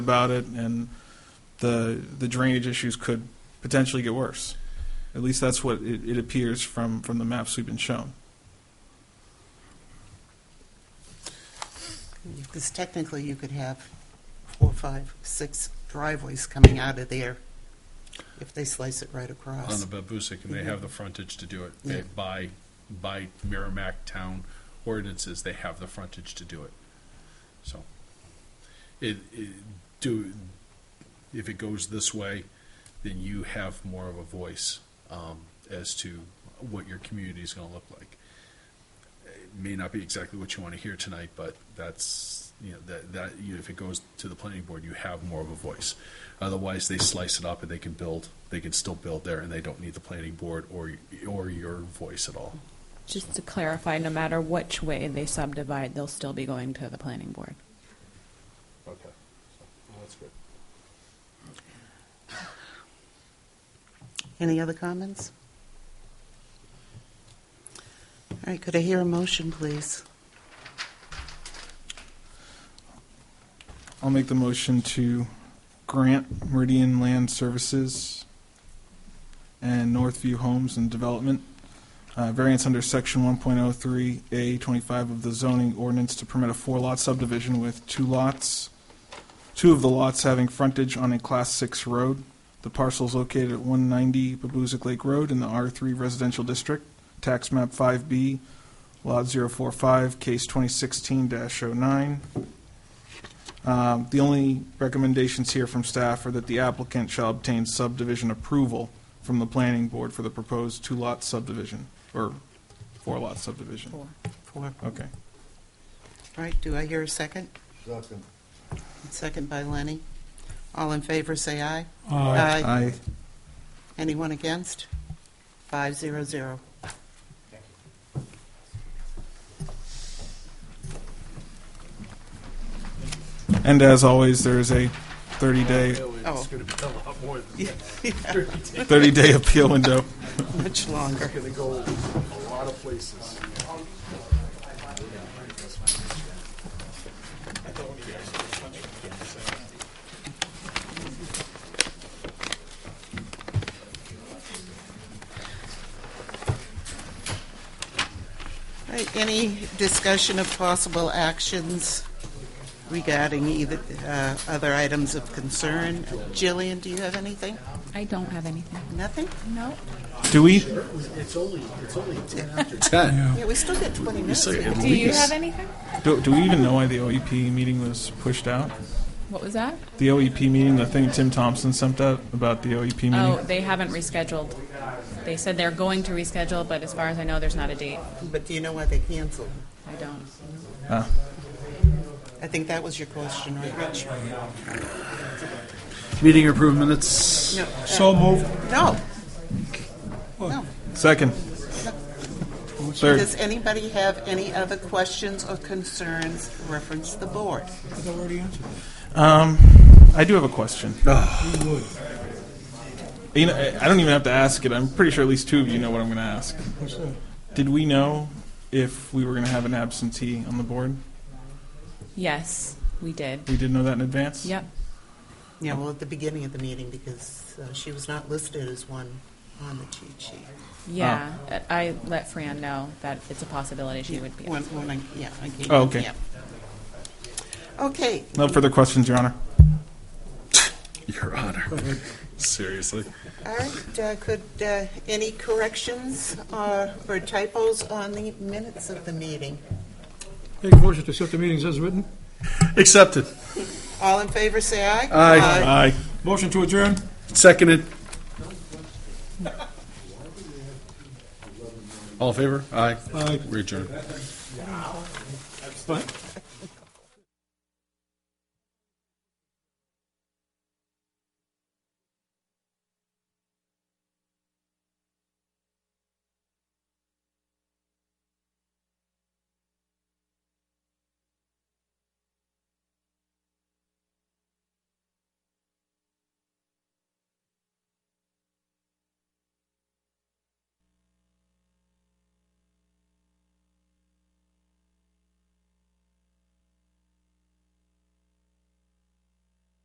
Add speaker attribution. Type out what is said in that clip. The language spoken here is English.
Speaker 1: about it, and the the drainage issues could potentially get worse. At least that's what it, it appears from, from the maps we've been shown.
Speaker 2: Because technically, you could have four, five, six driveways coming out of there if they slice it right
Speaker 3: on
Speaker 2: across.
Speaker 3: the Babusick, and they have the frontage to do it. They,
Speaker 2: Yeah.
Speaker 3: by, by Merrimack Town ordinances, they have the frontage to do it. So, it, it, do, if it goes this way, then you have more of a voice, um, as to what your community is gonna look like. It may not be exactly what you wanna hear tonight, but that's, you know, that, that, you know, if it goes to the planning board, you have more of a voice. Otherwise, they slice it up and they can build, they can still build there, and they don't need the planning board or, or your voice at all.
Speaker 4: Just to clarify, no matter which way they subdivide, they'll still be going to the planning board.
Speaker 3: Okay, that's good.
Speaker 2: Any other comments? All right, could I hear a motion, please?
Speaker 1: I'll make the motion to grant Meridian Land Services and Northview Homes and Development uh, variance under section 1.03A25 of the zoning ordinance to permit a four-lot subdivision with two lots, two of the lots having frontage on a Class 6 road. The parcel is located at 190 Babuzik Lake Road in the R3 Residential District, Tax Map 5B, Lot 045, Case 2016-09. Um, The only recommendations here from staff are that the applicant shall obtain subdivision approval from the planning board for the proposed two-lot subdivision, or four-lot subdivision.
Speaker 2: Four. All
Speaker 1: Okay.
Speaker 2: right, do I hear a second?
Speaker 5: Second.
Speaker 2: Second by Lenny. All in favor, say aye.
Speaker 1: Aye.
Speaker 2: Anyone against? Five zero zero.
Speaker 1: And as always, there is a 30-day,
Speaker 2: Oh.
Speaker 3: It's gonna be a lot more than,
Speaker 2: Yeah,
Speaker 1: 30-day appeal window.
Speaker 2: Much longer.
Speaker 5: Gonna go a lot of places.
Speaker 2: All right, any discussion of possible actions regarding either, uh, other items of concern? Jillian, do you have anything?
Speaker 4: I don't have anything.
Speaker 2: Nothing?
Speaker 4: No.
Speaker 1: Do we?
Speaker 2: Yeah, we still got 20 minutes.
Speaker 3: still
Speaker 2: We
Speaker 3: got-
Speaker 2: can-
Speaker 4: Do you have anything?
Speaker 1: Do do we even know why the OEP meeting was pushed out?
Speaker 4: What was that?
Speaker 1: The OEP meeting, the thing Tim Thompson sent out about the OEP
Speaker 4: Oh,
Speaker 1: meeting?
Speaker 4: they haven't rescheduled. They said they're going to reschedule, but as far as I know, there's not a date.
Speaker 2: But do you know why they canceled?
Speaker 4: I don't.
Speaker 1: Ah.
Speaker 2: I think that was your question, right, Rich?
Speaker 6: Meeting approved minutes.
Speaker 2: No.
Speaker 6: So moved.
Speaker 2: No. No.
Speaker 1: Second. Third.
Speaker 2: Does anybody have any other questions or concerns reference the board?
Speaker 1: Um, I do have a question. You know, I- I don't even have to ask it. I'm pretty sure at least two of you know what I'm going to ask. Did we know if we were going to have an absentee on the board?
Speaker 4: Yes, we did.
Speaker 1: We did know that in advance.
Speaker 4: Yep.
Speaker 2: Yeah, well, at the beginning of the meeting, because uh, she was not listed as one on the cheat sheet.
Speaker 4: Yeah. I let Fran know that it's a possibility she
Speaker 2: Yeah,
Speaker 4: would be.
Speaker 2: When, when I, yeah, I gave
Speaker 1: Oh,
Speaker 2: you-
Speaker 1: okay.
Speaker 2: yeah. Okay,
Speaker 1: No further questions, Your Honor.
Speaker 3: your honor, seriously.
Speaker 2: all right, uh, could, uh, any corrections uh, or typos on the minutes of the meeting?
Speaker 6: Make a motion to accept the meetings as written.
Speaker 3: Accepted,
Speaker 2: All in favor, say aye.
Speaker 3: Aye.
Speaker 1: Aye.
Speaker 6: Motion to adjourn.
Speaker 3: seconded. All in favor? Aye.
Speaker 6: Aye.
Speaker 3: We adjourn.
Speaker 6: Fine.